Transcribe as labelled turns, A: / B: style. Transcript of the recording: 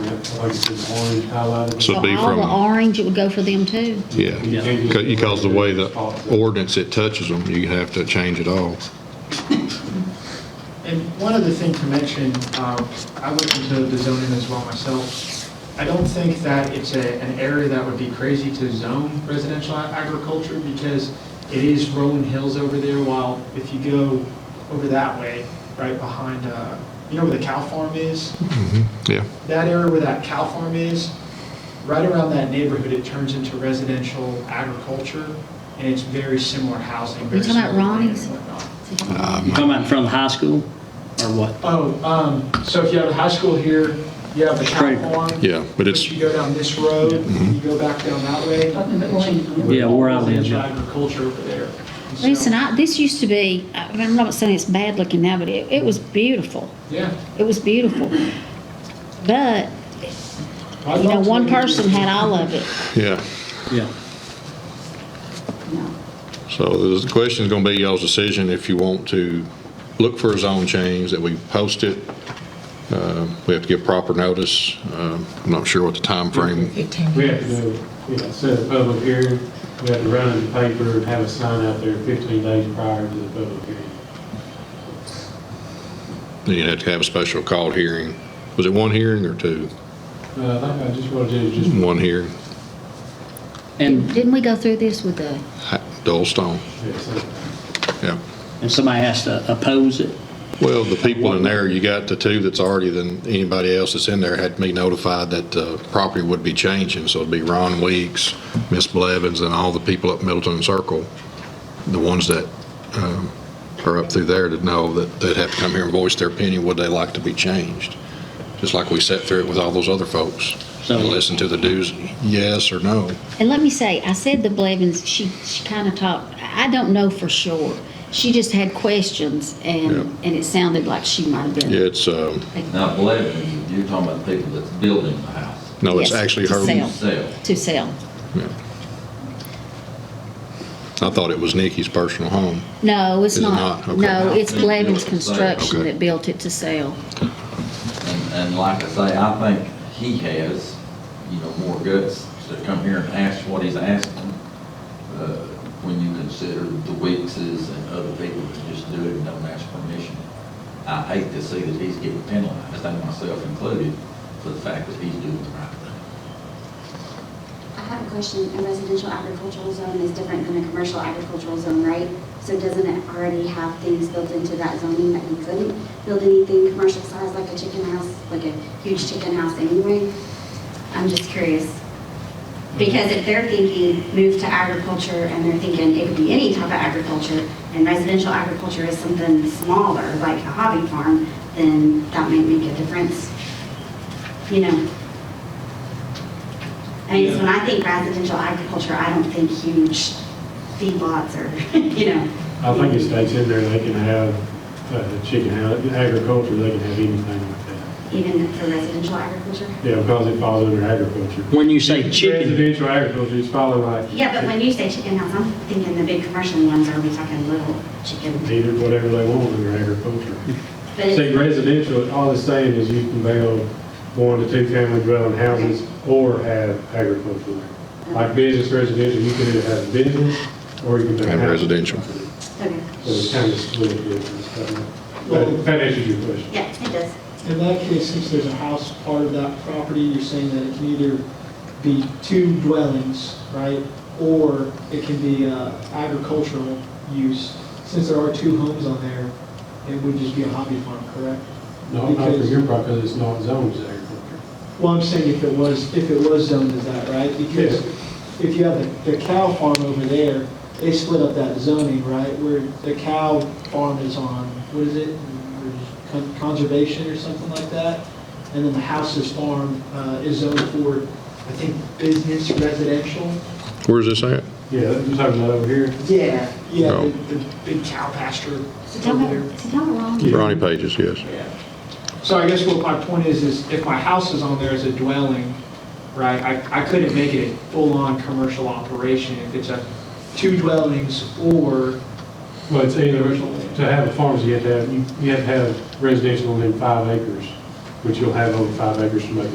A: like this orange highlighted.
B: So-
A: So
B: It'd be
C: All the
B: from-
C: orange, it would go for them too.
B: Yeah, Ca- because the way the ordinance it touches them, you have to change it all.
D: And one other thing to mention, um, I looked into the zoning as well myself. I don't think that it's a, an area that would be crazy to zone residential ag- agriculture because it is rolling hills over there, while if you go over that way, right behind, uh, you know where the cow farm is?
B: Yeah,
D: That area where that cow farm is, right around that neighborhood, it turns into residential agriculture, and it's very similar housing, very
C: You talking
D: similar.
C: about
D: land
C: Ronnie's?
D: and whatnot.
B: Um,
E: You talking about in front of the high school or what?
D: Oh, um, so if you have the high school here, you have the cow
E: Right.
D: farm.
B: Yeah, but it's- mm-hmm.
D: You go down this road, you go back down that way.
E: Yeah, where I live,
D: Residential
E: yeah.
D: Agriculture over there. And so-
C: Listen, I, this used to be, I mean, I'm not saying it's bad looking now, but it, it was beautiful.
D: Yeah.
C: It was beautiful. But, you know, one person had all of it.
B: yeah.
E: Yeah.
C: No.
B: So the question's gonna be y'all's decision if you want to look for a zone change, that we post it. Uh, We have to give proper notice. Um, I'm not sure what the time frame.
A: We have to go, you know, set a public hearing, we have to run in the paper and have a sign out there 15 days prior to the public hearing.
B: you'd have to have a special call hearing. Was it one hearing or two?
A: Uh, I think I just want to do just
B: One hearing,
E: And,
C: Didn't we go through this with the,
B: Ha- Dole Stone,
A: this.
B: yeah.
E: and somebody has to oppose it?
B: Well, the people in there, you got the two that's already, than anybody else that's in there had to be notified that the property would be changing. So it'd be Ron Weeks, Miss Blevins, and all the people up Middleton Circle, the ones that um, are up through there to know that they'd have to come here and voice their opinion, would they like to be changed? Just like we sat through it with all those other folks
E: So-
B: and listened to the do's, yes or no.
C: and let me say, I said the Blevins, she, she kind of talked, I don't know for sure. She just had questions and,
B: Yeah.
C: and it sounded like she might have been.
B: Yeah, it's, um,
F: Now, Blevins, you're talking about people that's building the house.
B: no, it's
C: Yes,
B: actually
C: to
B: her.
C: sell.
F: Sell.
C: To sell.
B: Yeah. I thought it was Nikki's personal home.
C: No, it's
B: Is it
C: not.
B: not? Okay.
C: No, it's Blevins
F: Okay.
C: Construction
B: Okay.
C: that built it to sell.
F: And, and like I say, I think he has, you know, more guts to come here and ask what he's asking, uh, when you consider the Weekses and other people that just do it and don't ask permission. I hate to see that he's getting penalized, and myself included, for the fact that he's doing the right thing.
G: I have a question. A residential agricultural zone is different than a commercial agricultural zone, right? So doesn't it already have things built into that zoning that you couldn't build anything commercial size like a chicken house, like a huge chicken house anyway? I'm just curious. Because if they're thinking move to agriculture and they're thinking it could be any type of agriculture and residential agriculture is something smaller, like a hobby farm, then that might make a difference. You know? I mean, 'cause when I think residential agriculture, I don't think huge feedlots or, you know.
A: I think it states in there, they can have uh, chicken house- agriculture, they can have anything like that.
G: Even for residential agriculture.
A: Yeah, because it falls under agriculture.
E: When you say chicken,
A: Residential agriculture is followed like.
G: Yeah, but when you say chicken house, I'm thinking the big commercial ones, are we talking little chicken?
A: Either whatever they want under agriculture.
G: But
A: See,
G: it's-
A: residential, all it's saying is you can build one to two family dwelling houses or have agricultural. Like business residential, you can either have business or you can. have
B: And
A: house.
B: residential.
G: okay.
A: So it's kind of split. yeah. That that answers your question.
G: Yeah, it does.
D: In that case, since there's a house part of that property, you're saying that it can either be two dwellings, right? Or it can be uh, agricultural use. Since there are two homes on there, it would just be a hobby farm, correct?
A: No, not for
D: Because-
A: your part, because it's not zoned as agriculture.
D: Well, I'm saying if it was, if it was zoned as that, right? Because if you have the the cow farm over there, they split up that zoning, right? Where the cow farm is on, what is it? Con- Conservation or something like that? And then the house's farm uh, is zoned for, I think, business residential?
B: Where's this at?
A: Yeah, I'm talking about over here.
D: Yeah. Yeah,
B: No.
D: the the big cow pasture
G: So tell
D: over
G: me,
D: there.
G: so tell me wrong.
B: Ronnie Pages, yes.
D: So I guess what my point is, is if my house is on there as a dwelling, right, I, I couldn't make it a full-on commercial operation if it's a two dwellings or,
A: Well, it's either, to have a farm, you have to have, you you have to have residential within five acres, which you'll have over five acres to make